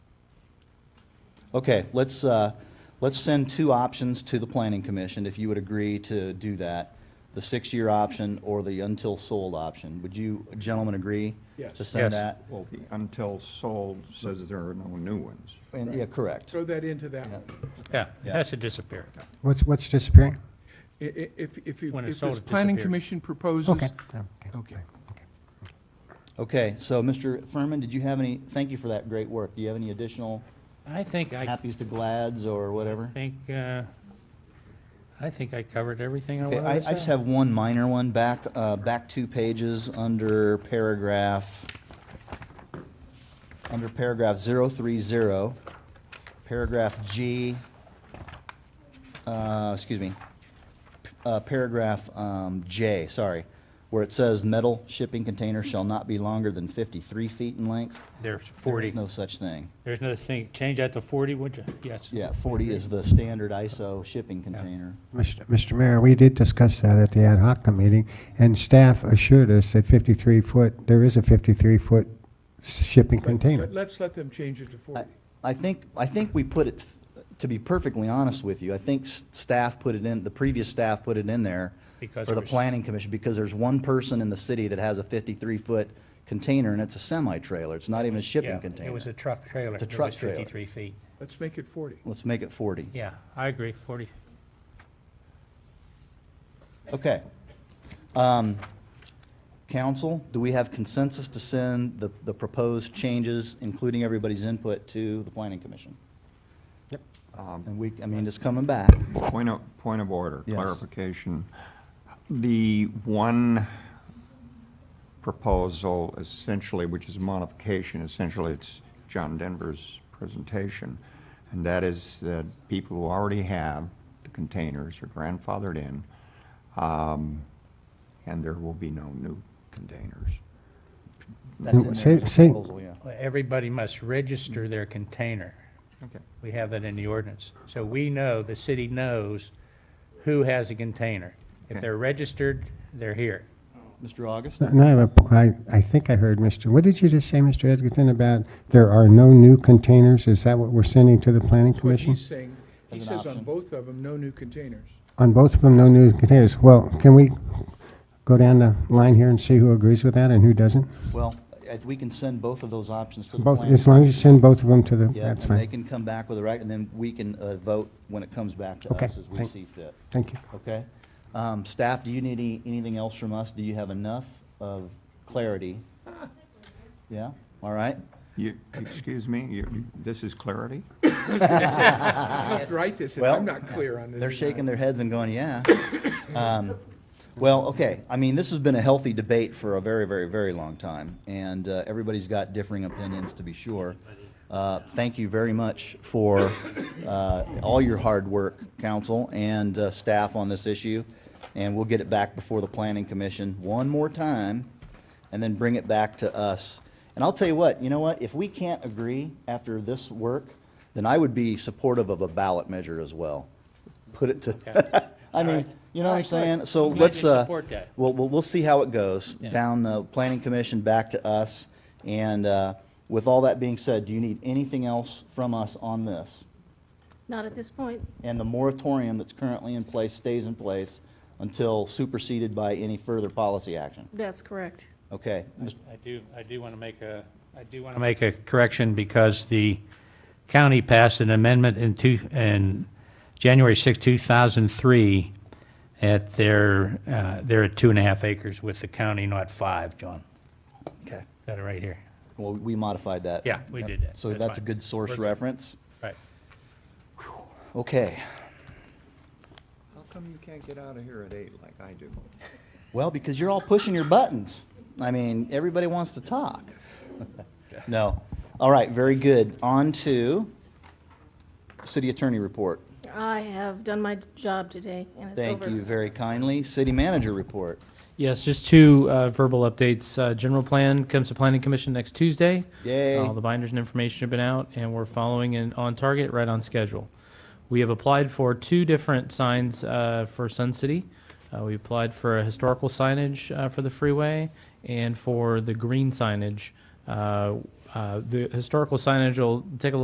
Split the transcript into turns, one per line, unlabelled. Okay, let's, uh, let's send two options to the planning commission, if you would agree to do that. The six-year option or the until sold option. Would you gentlemen agree?
Yes.
To send
Yes.
that?
Well, the until sold says there are no new ones.
And, yeah, correct.
Throw that into that one.
Yeah, it
Yeah.
has to disappear.
What's, what's disappearing?
I- i- If, if you,
When it's
if this
sold, it
planning
disappears.
commission proposes,
Okay.
Okay.
Okay, so Mr. Furman, did you have any, thank you for that great work. Do you have any additional
I think I,
happies to glads or whatever?
think, uh, I think I covered everything I
Okay, I,
wanted to say.
I just have one minor one, back, uh, back two pages, under paragraph, under paragraph zero three zero, paragraph G, uh, excuse me, uh, paragraph, um, J, sorry, where it says metal shipping container shall not be longer than fifty-three feet in length.
There's
There's
forty,
no such thing.
there's another thing, change that to forty, would you? Yes.
Yeah, forty is the standard ISO shipping container.
Mr. Mr. Mayor, we did discuss that at the ad hoc meeting, and staff assured us that 53-foot, there is a 53-foot shipping container.
but let's let them change it to 40.
I think, I think we put it, to be perfectly honest with you, I think s- staff put it in, the previous staff put it in there
Because
for
it
the
was-
planning commission, because there's one person in the city that has a 53-foot container, and it's a semi-trailer. It's not even a
Yeah,
shipping container.
It was a truck trailer.
It's a
that
truck
was
trailer.
Fifty-three feet.
Let's make it 40.
Let's make it 40.
Yeah, I agree, forty.
Okay. Um, Council, do we have consensus to send the, the proposed changes, including everybody's input, to the planning commission?
Um,
And we, I mean, it's coming back.
Point of, point of order,
Yes.
clarification. The one proposal essentially, which is a modification, essentially it's John Denver's presentation, and that is that people who already have the containers are grandfathered in, um, and there will be no new containers.
That's in
Well,
there
say-
as a
say-
proposal, yeah.
Everybody must register their container.
Okay.
We have that in the ordinance. So we know, the city knows who has a container. If
Okay.
they're registered, they're here.
Mr. August?
And I have a p- I- I think I heard, Mr., what did you just say, Mr. Edgerton, about there are no new containers? Is that what we're sending to the planning
That's what
commission?
he's saying. He
As an
says on
option.
both of them, no new containers.
On both of them, no new containers. Well, can we go down the line here and see who agrees with that and who doesn't?
Well, I- we can send both of those options to the
Both,
planning.
as long as you send both of them to the,
Yeah, and
that's
they
fine.
can come back with a rec, and then we can uh, vote when it comes back to
Okay,
us as we
thank-
see fit,
Thank you.
okay? Um, Staff, do you need any- anything else from us? Do you have enough of clarity? Yeah, all right?
You, excuse me, you, you- this is clarity?
I'll have to write this, if
Well,
I'm not clear on this.
They're shaking their heads and going, yeah. Um, Well, okay, I mean, this has been a healthy debate for a very, very, very long time, and uh, everybody's got differing opinions, to be sure. Uh, Thank you very much for uh, all your hard work, council and uh, staff on this issue, and we'll get it back before the planning commission one more time, and then bring it back to us. And I'll tell you what, you know what, if we can't agree after this work, then I would be supportive of a ballot measure as well. Put it to, I mean, you know what I'm saying? So
I'm glad
let's,
you
uh,
support that.
we'll, we'll, we'll see how it goes,
Yeah.
down the planning commission, back to us. And, uh, with all that being said, do you need anything else from us on this?
Not at this point.
And the moratorium that's currently in place stays in place until superseded by any further policy action?
That's correct.
Okay, Mr.
I do, I do want to make a, I do want to make a correction because the county passed an amendment in two, in January 6, 2003, at their, uh, they're at two and a half acres with the county, not five, John.
Okay.
Got it right here.
Well, we modified that.
Yeah, we did that.
So
That's
that's a
fine.
good source
We're good.
reference.
Right.
Okay.
How come you can't get out of here at eight like I do?
Well, because you're all pushing your buttons. I mean, everybody wants to talk. No. All right, very good. On to city attorney report.
I have done my job today, and it's over.
Thank you very kindly. City manager report.
Yes, just two uh, verbal updates. Uh, General plan comes to planning commission next Tuesday.
Yay.
All the binders and information have been out, and we're following and on target, right on schedule. We have applied for two different signs uh, for Sun City. Uh, We applied for a historical signage uh, for the freeway and for the green signage. Uh, uh, The historical signage will take a